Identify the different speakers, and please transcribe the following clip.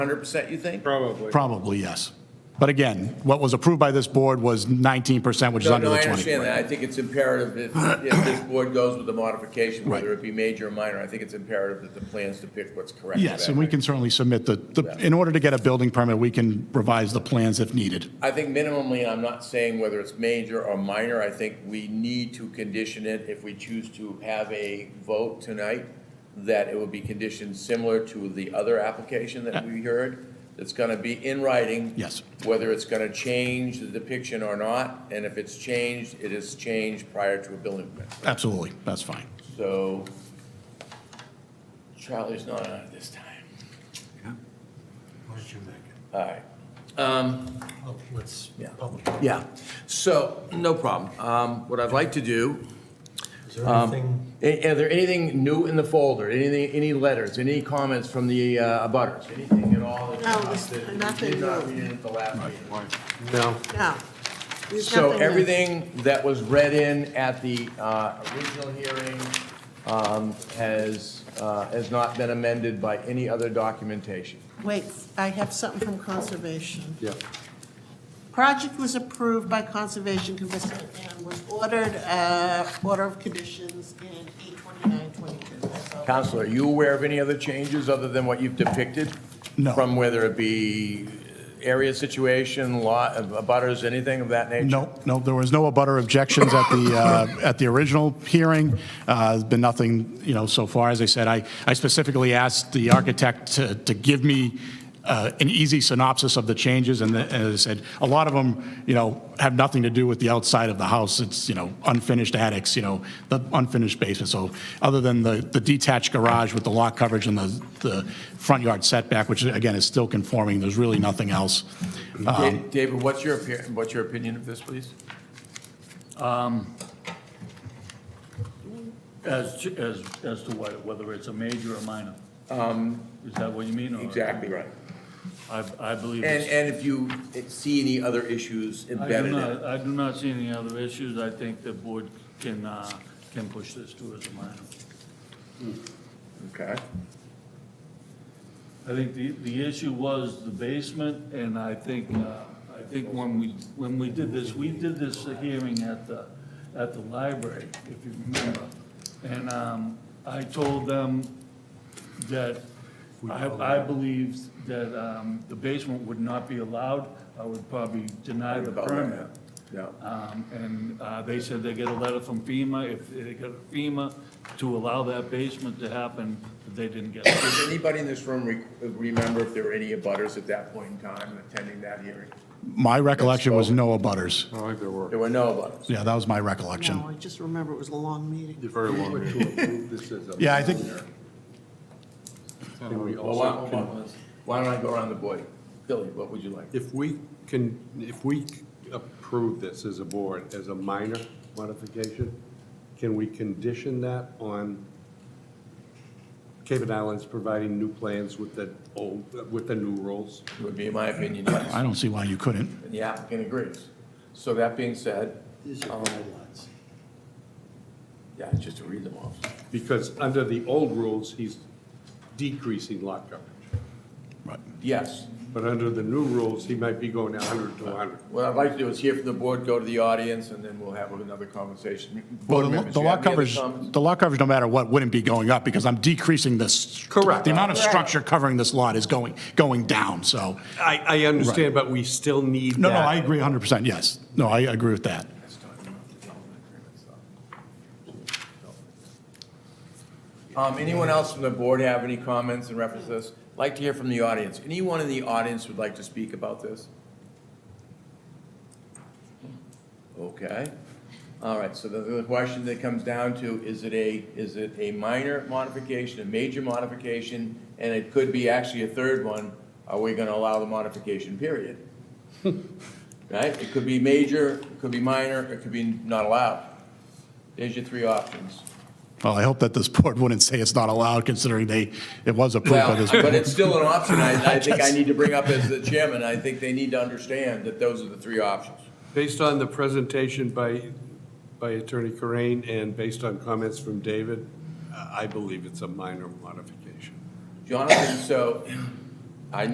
Speaker 1: Hundred percent, you think?
Speaker 2: Probably.
Speaker 3: Probably, yes. But again, what was approved by this board was 19%, which is
Speaker 1: No,
Speaker 3: under
Speaker 1: no,
Speaker 3: the
Speaker 1: I
Speaker 3: 20.
Speaker 1: understand that. I think it's imperative if, if this board goes with the modification,
Speaker 3: Right.
Speaker 1: whether it be major or minor, I think it's imperative that the plans depict what's correct. for
Speaker 3: Yes,
Speaker 1: that
Speaker 3: and we
Speaker 1: night.
Speaker 3: can certainly submit the- the, in order to get a building permit, we can revise the plans if needed.
Speaker 1: I think minimally, I'm not saying whether it's major or minor, I think we need to condition it if we choose to have a vote tonight, that it would be conditioned similar to the other application that we heard, that's gonna be in writing.
Speaker 3: Yes.
Speaker 1: Whether it's gonna change the depiction or not, and if it's changed, it is changed prior to a building permit.
Speaker 3: Absolutely, that's fine.
Speaker 1: So Charlie's not on it this time.
Speaker 4: Why don't you make
Speaker 1: All right.
Speaker 4: it? Oh, let's,
Speaker 1: Yeah.
Speaker 4: public.
Speaker 1: Yeah, so, no problem. Um, What I'd like to do
Speaker 4: Is there anything,
Speaker 1: A- Are there anything new in the folder, anything, any letters, any comments from the uh, abutters, anything at all? that-
Speaker 5: No, Oh, there's
Speaker 1: that
Speaker 5: nothing
Speaker 1: Did not
Speaker 5: new.
Speaker 1: read it at the last meeting.
Speaker 4: no,
Speaker 5: No. There's
Speaker 1: So
Speaker 5: nothing there.
Speaker 1: everything that was read in at the uh, original hearing um, has, uh, has not been amended by any other documentation.
Speaker 5: Wait, I have something from Conservation.
Speaker 4: yeah.
Speaker 5: Project was approved by Conservation Commission and was ordered, uh, order of conditions in eight twenty-nine twenty-two, that's all.
Speaker 1: Counselor, are you aware of any other changes other than what you've depicted?
Speaker 3: No.
Speaker 1: From whether it be area situation, lot, uh, abutters, anything of that nature?
Speaker 3: No, no, there was no abutter objections at the, uh, at the original hearing. Uh, There's been nothing, you know, so far. As I said, I I specifically asked the architect to to give me uh, an easy synopsis of the changes, and the- as I said, a lot of them, you know, have nothing to do with the outside of the house. It's, you know, unfinished attics, you know, the unfinished basement. So other than the the detached garage with the lot coverage and the the front yard setback, which again is still conforming, there's really nothing else. Uh-huh.
Speaker 1: Da- David, what's your, appear- what's your opinion of this, please?
Speaker 6: As, to- as, as to what, whether it's a major or minor?
Speaker 1: Um,
Speaker 6: Is that what you mean? or-
Speaker 1: right.
Speaker 6: I, I believe
Speaker 1: And,
Speaker 6: it's.
Speaker 1: and if you see any other issues
Speaker 6: I do
Speaker 1: embedded in it?
Speaker 6: not, I do not see any other issues. I think the board can, uh, can push this to as a minor.
Speaker 1: Okay.
Speaker 6: I think the, the issue was the basement, and I think, uh, I think when we, when we did this, we did this hearing at the, at the library, if you remember. And um, I told them that I, I believed that um, the basement would not be allowed. I would probably deny the
Speaker 1: About
Speaker 6: permit.
Speaker 1: Yeah.
Speaker 6: Um, And uh, they said they get a letter from FEMA, if they get a FEMA to allow that basement to happen, but they didn't get it.
Speaker 1: Does anybody in this room re- remember if there were any abutters at that point in time attending that hearing?
Speaker 3: My recollection was no abutters.
Speaker 2: I think they were.
Speaker 1: There were no abutters.
Speaker 3: Yeah, that was my recollection.
Speaker 5: No, I just remember it was a long meeting.
Speaker 2: Very long.
Speaker 3: Yeah, I think,
Speaker 1: Well, why- hold on. Why don't I go around the board? Billy, what would you like?
Speaker 2: If we can, if we approve this as a board, as a minor modification, can we condition that on Cape and Islands providing new plans with the old, with the new rules?
Speaker 1: Would be my opinion, yes.
Speaker 3: I don't see why you couldn't.
Speaker 1: And the applicant agrees. So that being said,
Speaker 4: These are guidelines.
Speaker 1: yeah, it's just to read them off.
Speaker 2: Because under the old rules, he's decreasing lot coverage.
Speaker 3: Right.
Speaker 1: Yes.
Speaker 2: But under the new rules, he might be going 100 to 100.
Speaker 1: What I'd like to do is hear from the board, go to the audience, and then we'll have another conversation.
Speaker 3: Well,
Speaker 1: Board
Speaker 3: the-
Speaker 1: members,
Speaker 3: the
Speaker 1: you have
Speaker 3: lot
Speaker 1: any other
Speaker 3: coverage,
Speaker 1: comments?
Speaker 3: the lot coverage, no matter what, wouldn't be going up because I'm decreasing this.
Speaker 2: Correct.
Speaker 3: The amount of structure covering this lot is going, going down, so.
Speaker 2: I, I understand, but we still need
Speaker 3: No, no,
Speaker 2: that.
Speaker 3: I agree 100%, yes. No, I agree with that.
Speaker 1: Um, anyone else from the board have any comments in reference to this? Like to hear from the audience. Anyone in the audience would like to speak about this? Okay. All right, so the, the question that comes down to, is it a, is it a minor modification, a major modification? And it could be actually a third one. Are we gonna allow the modification period? Right? It could be major, it could be minor, it could be not allowed. There's your three options.
Speaker 3: Well, I hope that this board wouldn't say it's not allowed considering they, it was approved by
Speaker 1: Well,
Speaker 3: this.
Speaker 1: but
Speaker 3: board.
Speaker 1: it's still an option. I, I think I need to bring up as the chairman, I think they need to understand that those are the three options.
Speaker 2: Based on the presentation by, by Attorney Corain and based on comments from David, I I believe it's a minor modification.
Speaker 1: Jonathan, so